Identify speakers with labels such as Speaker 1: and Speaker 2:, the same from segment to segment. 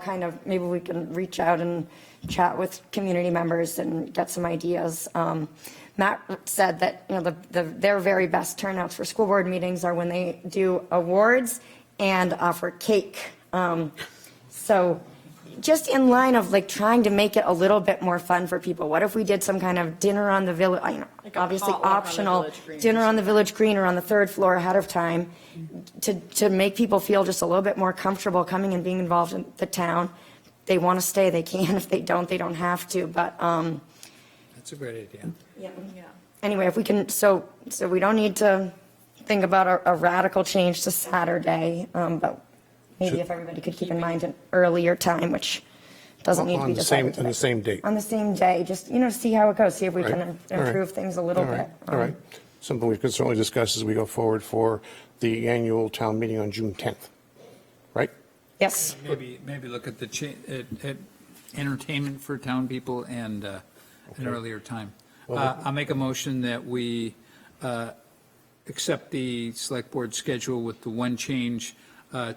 Speaker 1: kind of, maybe we can reach out and chat with community members and get some ideas. Um, Matt said that, you know, the, the, their very best turnouts for school board meetings are when they do awards and offer cake. Um, so just in line of like trying to make it a little bit more fun for people. What if we did some kind of dinner on the village, I know,
Speaker 2: Like a
Speaker 1: obviously
Speaker 2: potluck on the
Speaker 1: optional,
Speaker 2: village green.
Speaker 1: dinner on the village green or on the third floor ahead of time to, to make people feel just a little bit more comfortable coming and being involved in the town. They want to stay, they can. If they don't, they don't have to. But, um,
Speaker 3: That's a great idea.
Speaker 1: anyway, if we can, so, so we don't need to think about a a radical change to Saturday, um, but maybe if everybody could keep in mind an earlier time, which doesn't need to
Speaker 3: On
Speaker 1: be
Speaker 3: the same,
Speaker 1: decided
Speaker 3: on the
Speaker 1: today.
Speaker 3: same date.
Speaker 1: On the same day, just, you know, see how it goes, see if we
Speaker 3: Right.
Speaker 1: can
Speaker 3: All right.
Speaker 1: improve things a little
Speaker 3: All
Speaker 1: bit. Um,
Speaker 3: right. All right. Something we could certainly discuss as we go forward for the annual town meeting on June 10th, right?
Speaker 1: Yes.
Speaker 4: Maybe, maybe look at the, cha- at at entertainment for town people and uh, an earlier time. Uh, I'll make a motion that we uh, accept the select board schedule with the one change, uh,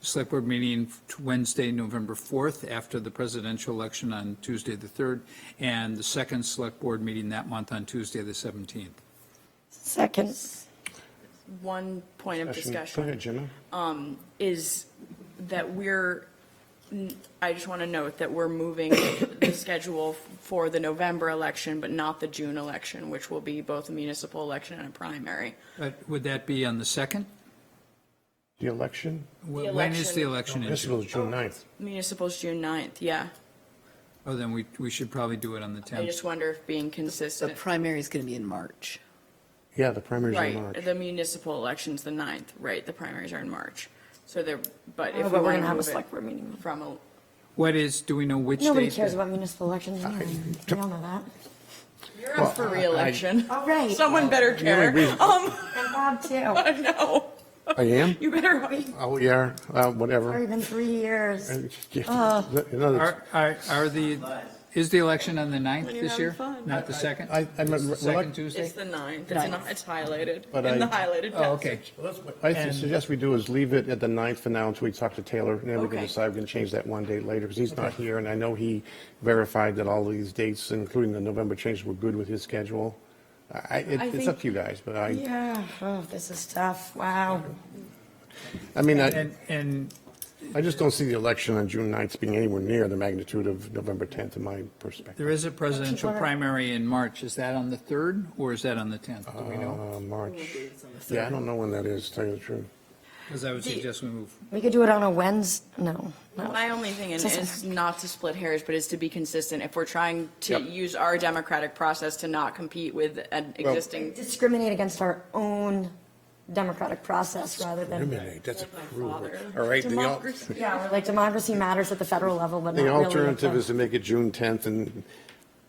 Speaker 4: select board meeting to Wednesday, November 4th, after the presidential election on Tuesday, the 3rd, and the second select board meeting that month on Tuesday, the 17th.
Speaker 1: Second,
Speaker 2: One point of
Speaker 3: Go
Speaker 2: discussion um,
Speaker 3: ahead, Jimmy.
Speaker 2: is that we're, I just want to note that we're moving the schedule for the November election, but not the June election, which will be both a municipal election and a primary.
Speaker 4: But Uh, Would that be on the 2nd?
Speaker 3: The election,
Speaker 4: Wh- When is the
Speaker 2: election-
Speaker 4: election? in
Speaker 3: Oh, this
Speaker 4: June?
Speaker 3: was June 9th.
Speaker 2: Municipal's June 9th, yeah.
Speaker 4: Oh, then we, we should probably do it on the 10th.
Speaker 2: I just wonder if being
Speaker 5: The
Speaker 2: consistent,
Speaker 5: primary is going to be in March.
Speaker 3: Yeah, the primary's in
Speaker 2: right,
Speaker 3: March.
Speaker 2: the municipal election's the 9th, right, the primaries are in March. So they're, but
Speaker 1: Oh, but we're
Speaker 2: if we want
Speaker 1: gonna
Speaker 2: to
Speaker 1: have a
Speaker 2: move
Speaker 1: select
Speaker 2: it
Speaker 1: board meeting.
Speaker 2: from, a-
Speaker 4: What is, do we know which date?
Speaker 1: Nobody cares
Speaker 4: that-
Speaker 1: about municipal elections anyway. We all know that.
Speaker 2: you're up for reelection.
Speaker 1: All right.
Speaker 2: Someone better care. Um,
Speaker 1: And Bob too.
Speaker 2: no,
Speaker 3: I am?
Speaker 2: you better hope.
Speaker 3: Oh, yeah, uh,
Speaker 1: Already
Speaker 3: whatever.
Speaker 1: been three years.
Speaker 3: Yeah.
Speaker 1: Uh,
Speaker 3: Another-
Speaker 4: Are, are, are the, is the election on the 9th
Speaker 2: you're
Speaker 4: this
Speaker 2: having
Speaker 4: year?
Speaker 2: fun.
Speaker 4: Not the 2nd?
Speaker 3: I- I meant-
Speaker 4: Second
Speaker 2: It's
Speaker 4: Tuesday?
Speaker 2: the ninth, it's not, it's highlighted,
Speaker 3: But
Speaker 2: in the
Speaker 3: I-
Speaker 2: highlighted
Speaker 4: Oh,
Speaker 2: passage.
Speaker 4: okay.
Speaker 3: I
Speaker 4: And-
Speaker 3: suggest we do is leave it at the 9th for now until we talk to Taylor, and then we can
Speaker 2: Okay.
Speaker 3: decide, we can change that one date later, because he's not here, and I know he verified that all these dates, including the November changes, were good with his schedule. I, it-
Speaker 2: I
Speaker 3: it's
Speaker 2: think-
Speaker 3: up to you guys, but I,
Speaker 1: Yeah, oh, this is tough, wow.
Speaker 3: I mean, I,
Speaker 4: And, and
Speaker 3: I just don't see the election on June 9th being anywhere near the magnitude of November 10th in my
Speaker 4: there
Speaker 3: perspective.
Speaker 4: is a
Speaker 1: People
Speaker 4: presidential
Speaker 1: are-
Speaker 4: primary in March. Is that on the 3rd or is that on the 10th? Do we know?
Speaker 3: Uh, March. Yeah, I don't know when that is, to tell you the truth.
Speaker 4: Because I would
Speaker 2: the-
Speaker 4: suggest we move.
Speaker 1: We could do it on a Wednesday, no, no.
Speaker 2: My only thing is,
Speaker 1: Doesn't
Speaker 2: is not to split hairs, but is to be consistent. If we're trying to use our democratic process to not compete with an existing,
Speaker 1: discriminate against our own democratic process rather than,
Speaker 3: Eliminate, that's cruel.
Speaker 2: father.
Speaker 3: All right, the al-
Speaker 2: Democracy.
Speaker 1: yeah, we're like democracy matters at the federal level, but not
Speaker 3: the
Speaker 1: really. at
Speaker 3: alternative is to make it June 10th and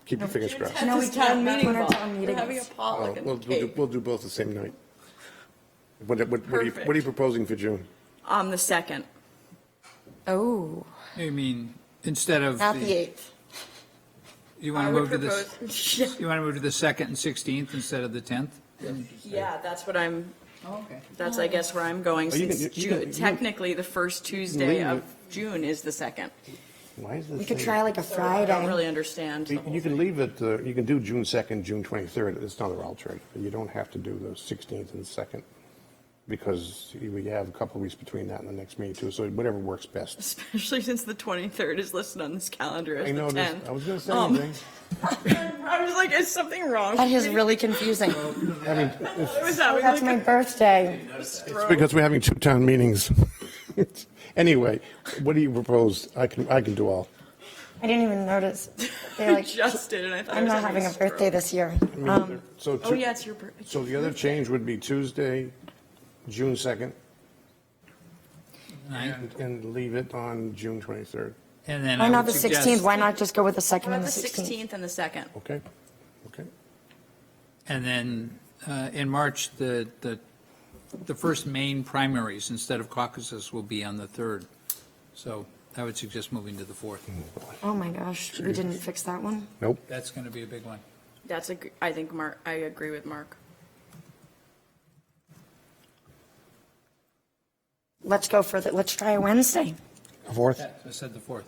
Speaker 3: keep your fingers crossed.
Speaker 1: No, we
Speaker 2: This is town
Speaker 1: can't. That's
Speaker 2: meeting
Speaker 1: when our
Speaker 2: ball.
Speaker 1: town
Speaker 2: We're
Speaker 1: meeting
Speaker 2: having a
Speaker 1: is.
Speaker 3: Oh,
Speaker 2: potluck
Speaker 3: We'll, we'll
Speaker 2: and
Speaker 3: do,
Speaker 2: cake
Speaker 3: we'll do both the same night. What, what, what are you, what are you
Speaker 2: Perfect.
Speaker 3: proposing for June?
Speaker 2: on the second.
Speaker 1: Oh,
Speaker 4: I mean, instead of,
Speaker 1: not the
Speaker 4: the-
Speaker 1: 8th.
Speaker 4: you want
Speaker 2: I
Speaker 4: to
Speaker 2: would
Speaker 4: move to the,
Speaker 2: propose,
Speaker 4: you want to move to the 2nd and 16th instead of the 10th?
Speaker 2: yeah, that's what I'm,
Speaker 4: Oh, okay.
Speaker 2: that's I guess where I'm going,
Speaker 3: Oh, you
Speaker 2: since
Speaker 3: can- you
Speaker 2: Ju-
Speaker 3: can- you can-
Speaker 2: technically the first Tuesday
Speaker 3: leave
Speaker 2: of
Speaker 3: it.
Speaker 2: June is the second.
Speaker 3: Why is this?
Speaker 1: We could
Speaker 3: thing-
Speaker 1: try like a
Speaker 2: I don't
Speaker 1: Friday.
Speaker 2: really understand the
Speaker 3: You
Speaker 2: whole
Speaker 3: you can leave it, uh, you can do June 2nd, June 23rd, it's another alternative. You don't have to do the 16th and 2nd, because you- we have a couple of weeks between that and the next meeting too, so whatever works best.
Speaker 2: Especially since the 23rd is listed on this calendar as
Speaker 3: I
Speaker 2: the
Speaker 3: know, this-
Speaker 2: 10th.
Speaker 3: I was gonna say
Speaker 2: Um,
Speaker 3: anything.
Speaker 2: I was like, is something wrong?
Speaker 1: That is really confusing.
Speaker 3: I mean,
Speaker 2: It was
Speaker 1: Oh,
Speaker 2: that,
Speaker 1: That's my birthday.
Speaker 3: it's because we're having two town meetings. Anyway, what do you propose? I can, I can do all.
Speaker 1: I didn't even notice. They're like,
Speaker 2: just did, and I thought I
Speaker 1: I'm
Speaker 2: was
Speaker 1: not having a
Speaker 2: stroke.
Speaker 1: birthday this year. Um,
Speaker 3: So
Speaker 2: Oh,
Speaker 3: two-
Speaker 2: yeah, it's your birthday.
Speaker 3: So the other change would be Tuesday, June 2nd, and, and leave it on June 23rd,
Speaker 4: And
Speaker 2: Oh,
Speaker 4: then
Speaker 1: Why
Speaker 4: I
Speaker 1: not
Speaker 4: would
Speaker 1: the
Speaker 4: suggest-
Speaker 1: 16th? Why not just go with the
Speaker 2: How
Speaker 1: 2nd
Speaker 2: about
Speaker 1: and
Speaker 2: the
Speaker 1: the 16th?
Speaker 2: 16th and the 2nd?
Speaker 3: okay? Okay,
Speaker 4: And then uh, in March, the, the, the first main primaries instead of caucuses will be on the 3rd. So I would suggest moving to the 4th.
Speaker 1: Oh my gosh, we didn't fix that one?
Speaker 3: nope.
Speaker 4: That's going to be a big one.
Speaker 2: That's a, gr- I think Mark, I agree with Mark.
Speaker 1: Let's go for the, let's try a Wednesday.
Speaker 3: Fourth?
Speaker 4: I said the 4th.